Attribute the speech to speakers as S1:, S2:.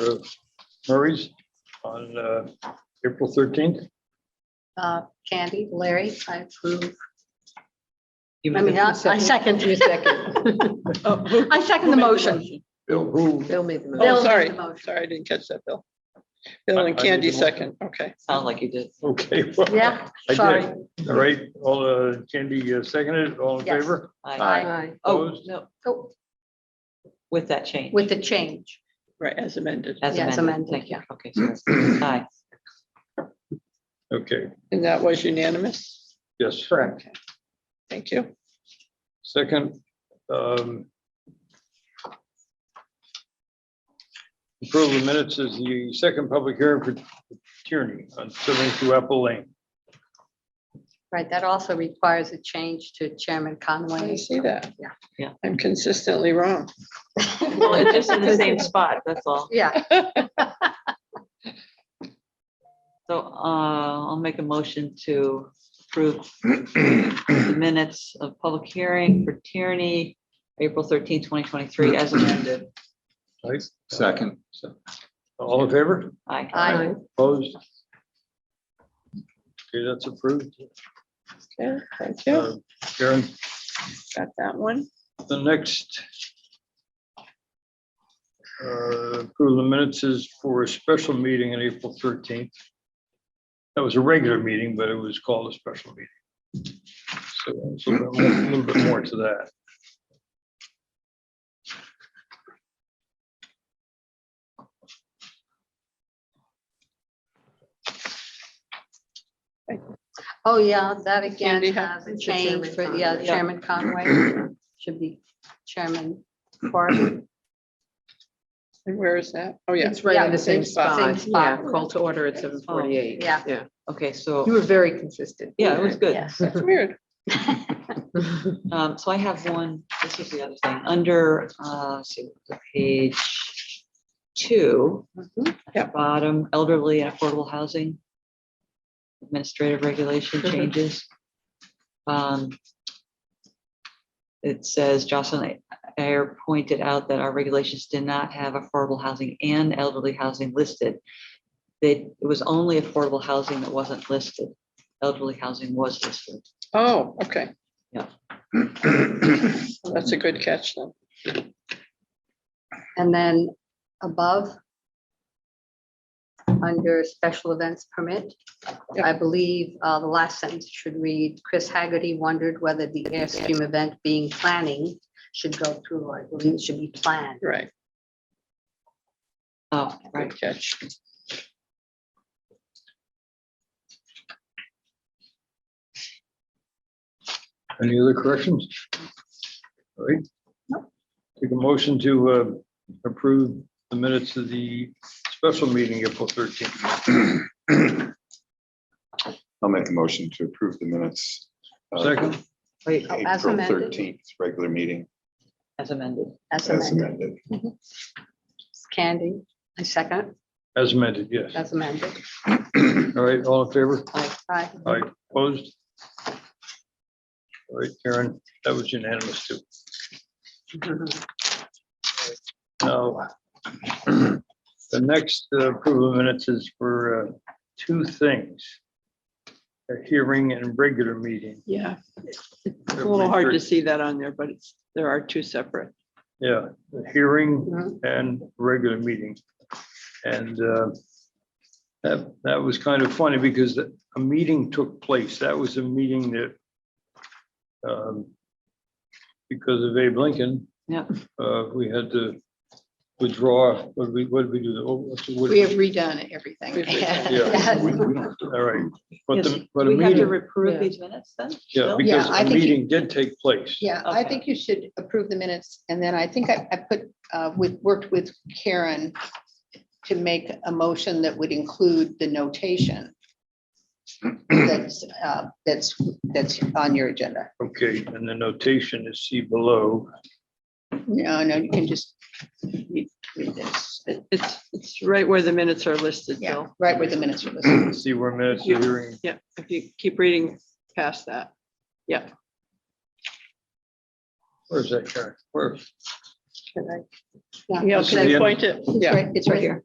S1: uh, Murray's on uh, April 13th.
S2: Uh, Candy, Larry, I approve.
S3: You
S2: I mean, I I second.
S3: You second.
S2: I second the motion.
S1: Bill, who,
S3: Bill made the motion.
S2: Bill
S4: Oh,
S2: made
S4: sorry,
S2: the motion.
S4: sorry, I didn't catch that, Bill.
S1: I-
S4: Bill
S1: I made
S4: and
S1: the
S4: Candy
S1: motion.
S4: second, okay.
S3: Sound like you did.
S1: okay. well,
S2: Yeah,
S1: I
S2: sorry.
S1: did. All right, all, uh, Candy uh, seconded, all in
S2: Yes.
S1: favor?
S3: Aye. Oh,
S1: Opposed?
S3: no,
S2: Oh,
S3: with that change.
S2: With the change.
S4: Right, as amended.
S3: As
S2: Yeah, it's
S3: amended,
S2: amended,
S3: thank you.
S2: yeah.
S3: Okay. so it's- Aye.
S1: Okay,
S4: And that was unanimous?
S1: yes.
S4: Correct. Thank you.
S1: Second, um, approval of minutes is the second public hearing for Tierney on 72 Apple Lane.
S2: Right, that also requires a change to Chairman
S4: I
S2: Conway.
S4: see that.
S2: Yeah.
S3: Yeah.
S4: I'm consistently wrong.
S3: Well, it's just in the same spot, that's all.
S2: Yeah,
S3: So uh, I'll make a motion to approve the minutes of public hearing for Tierney, April 13, 2023, as amended.
S1: Right?
S5: Second.
S1: So, All in favor?
S3: Aye.
S2: I,
S1: Opposed? Okay, that's approved.
S4: Okay, thank
S1: Uh,
S4: you.
S1: Karen,
S4: Got that one.
S1: the next uh, approval of minutes is for a special meeting on April 13th. That was a regular meeting, but it was called a special meeting. So so a little bit more to that.
S2: oh, yeah, that
S4: Candy
S2: again
S4: has-
S2: has a
S3: It's the
S2: change
S3: Chairman
S2: for, yeah,
S3: Conway. Yeah.
S2: Chairman Conway should be Chairman Corrigan.
S4: And where is that? Oh, yeah.
S6: It's right
S2: Yeah,
S6: in the same
S2: same spot.
S6: spot.
S2: Same
S6: Yeah,
S2: spot.
S6: call to order at seven forty-eight.
S2: Yeah.
S6: Yeah,
S3: Okay,
S6: you
S3: so,
S6: were very consistent.
S3: yeah, it was good.
S2: Yes.
S4: That's weird.
S3: Um, so I have one, this is the other thing, under, uh, let's see, page two.
S2: Mhm.
S3: at Bottom, elderly and affordable housing. Administrative regulation changes. Um. It says Jocelyn Ayer pointed out that our regulations did not have affordable housing and elderly housing listed. They, it was only affordable housing that wasn't listed. Elderly housing was listed.
S4: Oh, okay.
S3: Yeah.
S4: Well, That's a good catch then.
S2: And then above, under special events permit,
S4: Yeah.
S2: I believe uh, the last sentence should read, Chris Haggerty wondered whether the Airstream event being planning should go through, I believe it should be planned.
S4: Right,
S3: Oh, right.
S4: good catch.
S1: Any other corrections? All right. Take a motion to uh, approve the minutes of the special meeting April 13th.
S5: I'll make the motion to approve the minutes. of
S1: Second,
S3: Wait,
S2: Oh, as
S5: April
S2: amended.
S5: thirteenth, regular meeting
S3: as amended.
S2: As
S5: as
S2: amended.
S5: amended.
S2: Candy, I second,
S1: as amended, yes.
S2: as amended.
S1: All right, all in favor?
S2: Aye.
S1: All right, opposed? All right, Karen, that was unanimous too. Now, the next uh, approval of minutes is for uh, two things. A hearing and regular meeting.
S4: Yeah, it's a little hard to see that on there, but it's, there are two separate.
S1: Yeah, the hearing
S6: Mm-hmm.
S2: Mhm.
S1: and regular meeting. And uh, that, that was kind of funny because the- a meeting took place. That was a meeting that um, because of Abe Lincoln.
S3: Yep.
S1: uh, We had to withdraw, what did we, what did we do? Oh, what's the- what-
S6: We have redone everything.
S1: Yeah.
S5: We- we don't have to-
S1: All right, but
S3: Yes,
S1: the, but a
S3: We have to
S1: meeting,
S3: reprove
S6: Yeah.
S3: these minutes then?
S1: yeah,
S3: still?
S1: because
S6: Yeah, I
S1: a
S6: think you-
S1: meeting did take place.
S6: Yeah, I
S3: Okay.
S6: think you should approve the minutes, and then I think I, I put, uh, with, worked with Karen to make a motion that would include the notation that's, uh, that's, that's on your agenda.
S1: Okay, and the notation is see below.
S6: No, no, you can just read read this,
S4: It- It's, it's right where the minutes are listed,
S6: yeah,
S4: Bill.
S6: right where the minutes are listed.
S1: See where minutes of hearing
S4: Yeah, if you keep reading past that.
S1: Where's that, Karen? Where?
S4: Yeah,
S1: This is
S4: can
S1: the
S4: you
S1: end.
S4: point it?
S2: It's
S4: Yeah.
S2: right, it's right here.